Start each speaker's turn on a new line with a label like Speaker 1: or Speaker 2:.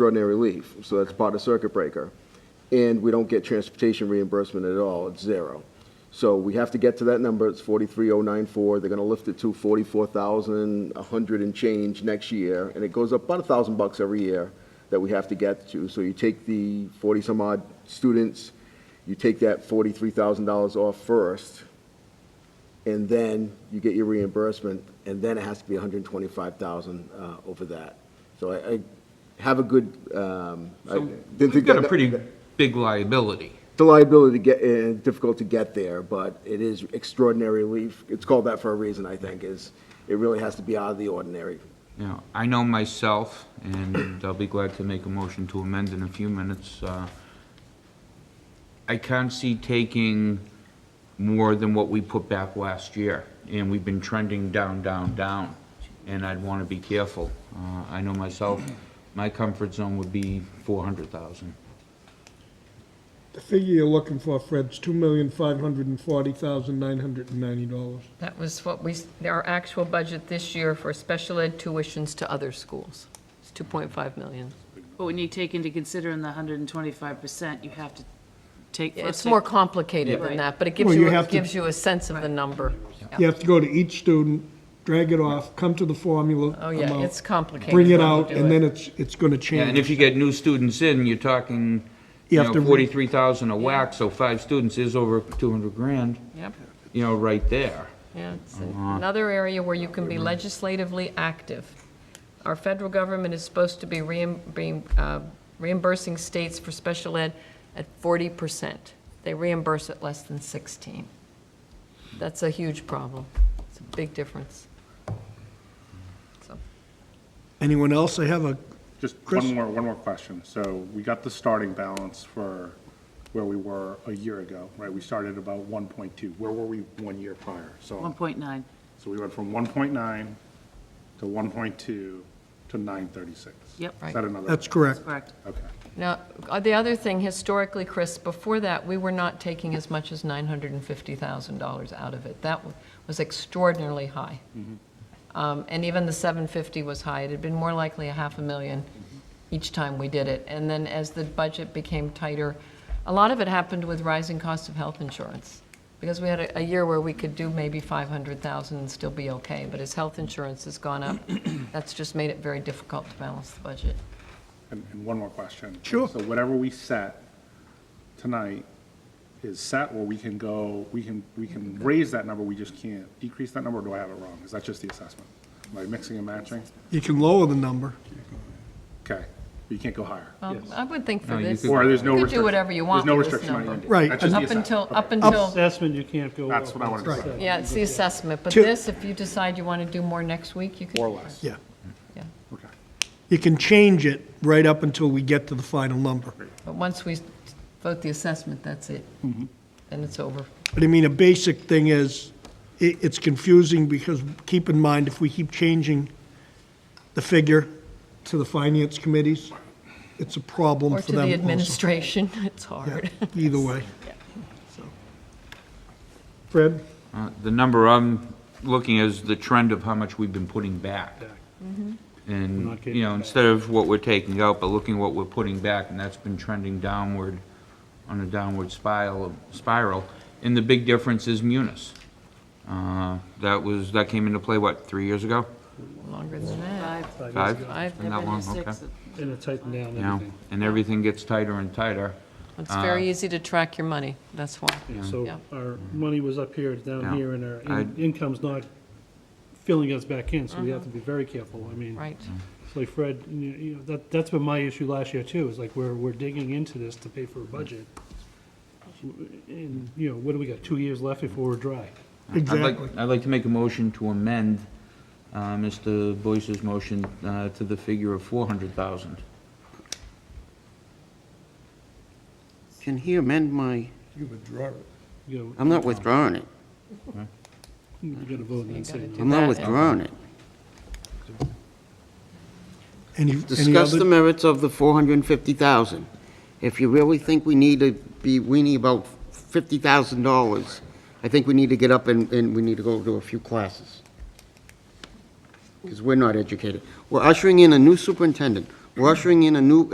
Speaker 1: extraordinary relief, so that's part of circuit breaker. And we don't get transportation reimbursement at all, it's zero. So we have to get to that number, it's 43094, they're gonna lift it to 44,100 and change next year, and it goes up about a thousand bucks every year that we have to get to. So you take the 40-some odd students, you take that $43,000 off first, and then you get your reimbursement, and then it has to be 125,000 uh, over that. So I I have a good, um, I
Speaker 2: So
Speaker 1: didn't
Speaker 2: we've
Speaker 1: think
Speaker 2: got a
Speaker 1: that-
Speaker 2: pretty big liability.
Speaker 1: The liability to get, and difficult to get there, but it is extraordinary relief. It's called that for a reason, I think, is it really has to be out of the ordinary.
Speaker 2: You know, I know myself, and I'll be glad to make a motion to amend in a few minutes. uh, I can't see taking more than what we put back last year, and we've been trending down, down, down, and I'd want to be careful. Uh, I know myself, my comfort zone would be 400,000.
Speaker 3: The figure you're looking for, Fred's two million five hundred and forty thousand nine hundred and ninety dollars.
Speaker 4: That was what we, s- our actual budget this year for special ed tuitions to other schools. It's 2.5 million.
Speaker 5: But when you take into considering the hundred and twenty-five percent, you have to take.
Speaker 4: Yeah,
Speaker 5: first
Speaker 4: It's
Speaker 5: take-
Speaker 4: more complicated than
Speaker 5: Right.
Speaker 4: that, but it gives
Speaker 3: Well, you
Speaker 4: you,
Speaker 3: have
Speaker 4: it
Speaker 3: to-
Speaker 4: gives you a sense of the number.
Speaker 3: You have to go to each student, drag it off, come to the formula.
Speaker 4: Oh, yeah,
Speaker 3: amount,
Speaker 4: it's complicated.
Speaker 3: Bring it
Speaker 4: when you
Speaker 3: out,
Speaker 4: do
Speaker 3: and then it's, it's gonna
Speaker 2: Yeah, And if
Speaker 3: change.
Speaker 2: you get new students in, you're talking,
Speaker 3: You
Speaker 2: you
Speaker 3: have
Speaker 2: know,
Speaker 3: to re-
Speaker 2: 43,000 a whack, so five students is over 200 grand,
Speaker 4: Yep,
Speaker 2: you know, right there.
Speaker 4: yeah, it's another area where you can be legislatively active. Our federal government is supposed to be reim- being, uh, reimbursing states for special ed at 40%. They reimburse at less than 16. That's a huge problem. It's a big difference. So,
Speaker 3: Anyone else? I have a,
Speaker 6: Just
Speaker 3: Chris?
Speaker 6: one more, one more question. So we got the starting balance for where we were a year ago, right? We started about one point two. Where were we one year prior?
Speaker 5: One
Speaker 6: So,
Speaker 5: point nine.
Speaker 6: so we went from one point nine to one point two to nine thirty-six.
Speaker 5: Yep.
Speaker 6: Is that another?
Speaker 3: that's correct.
Speaker 5: Correct.
Speaker 6: Okay.
Speaker 4: Now, uh, the other thing, historically, Chris, before that, we were not taking as much as $950,000 out of it. That w- was extraordinarily high. Um, And even the 750 was high. It had been more likely a half a million each time we did it. And then as the budget became tighter, a lot of it happened with rising cost of health insurance. Because we had a, a year where we could do maybe 500,000 and still be okay. But as health insurance has gone up, that's just made it very difficult to balance the budget.
Speaker 6: And, and one more question.
Speaker 3: Sure.
Speaker 6: So whatever we set tonight is set where we can go, we can, we can raise that number, we just can't decrease that number, or do I have it wrong? Is that just the assessment? Am I mixing and matching?
Speaker 3: You can lower the number.
Speaker 6: Okay, but you can't go higher?
Speaker 4: Well, I would think for
Speaker 2: No, you
Speaker 4: this.
Speaker 2: could-
Speaker 6: Or there's
Speaker 4: You
Speaker 6: no restriction?
Speaker 4: could do whatever you want
Speaker 6: There's no
Speaker 4: with this
Speaker 6: restriction on
Speaker 4: number.
Speaker 6: ending.
Speaker 3: Right.
Speaker 6: That's just
Speaker 3: Up
Speaker 6: the
Speaker 4: Up until,
Speaker 6: assessment.
Speaker 4: up
Speaker 6: Okay.
Speaker 4: until,
Speaker 7: Assessment, you can't go.
Speaker 6: That's
Speaker 7: up.
Speaker 6: what I wanted to say.
Speaker 4: yeah, it's the assessment, but
Speaker 3: Two-
Speaker 4: this, if you decide you want to do more next week, you could.
Speaker 6: Or less.
Speaker 3: Yeah.
Speaker 4: Yeah.
Speaker 6: Okay.
Speaker 3: You can change it right up until we get to the final number.
Speaker 4: But once we vote the assessment, that's it.
Speaker 3: Mm-hmm.
Speaker 4: Then it's over.
Speaker 3: But I mean, a basic thing is, i it's confusing because keep in mind, if we keep changing the figure to the finance committees, it's a problem
Speaker 4: Or
Speaker 3: for
Speaker 4: to
Speaker 3: them
Speaker 4: the
Speaker 3: also.
Speaker 4: administration, it's hard.
Speaker 3: Yeah, Either way. So. Fred?
Speaker 2: Uh, The number I'm looking is the trend of how much we've been putting back. Mm-hmm. And,
Speaker 7: not
Speaker 2: you know, instead of what we're taking out, but looking what we're putting back, and that's been trending downward on a downward spiral, spiral. And the big difference is munis. Uh, That was, that came into play, what, three years ago?
Speaker 4: Longer than that.
Speaker 5: Five.
Speaker 2: Five?
Speaker 4: I've
Speaker 2: Been that
Speaker 4: never
Speaker 2: long,
Speaker 4: used
Speaker 2: okay.
Speaker 5: Six.
Speaker 7: And it tightened down
Speaker 2: Yeah,
Speaker 7: everything.
Speaker 2: and everything gets tighter and tighter.
Speaker 4: It's very easy to track your money, that's why. Yeah.
Speaker 7: So our money was up here, it's
Speaker 2: Yeah.
Speaker 7: down here, and our in-
Speaker 2: I'd-
Speaker 7: income's not filling us back in, so we have to be very careful. I mean,
Speaker 4: Mm-hmm. Right,
Speaker 7: it's like Fred, you know, you know, that, that's been my issue last year too, is like we're, we're digging into this to pay for a budget. And, you know, what do we got, two years left before we're dry?
Speaker 2: I'd like,
Speaker 3: Exactly.
Speaker 2: I'd like to make a motion to amend uh, Mr. Boyce's motion uh, to the figure of 400,000.
Speaker 8: Can he amend my,
Speaker 7: You
Speaker 8: I'm not withdrawing it.
Speaker 7: gotta, you gotta vote and then say no.
Speaker 8: I'm not withdrawing it.
Speaker 3: Any, any
Speaker 8: Discuss the
Speaker 3: other,
Speaker 8: merits of the 450,000. If you really think we need to be weaning about $50,000, I think we need to get up and, and we need to go to a few classes. Because we're not educated. We're ushering in a new superintendent. We're ushering in a new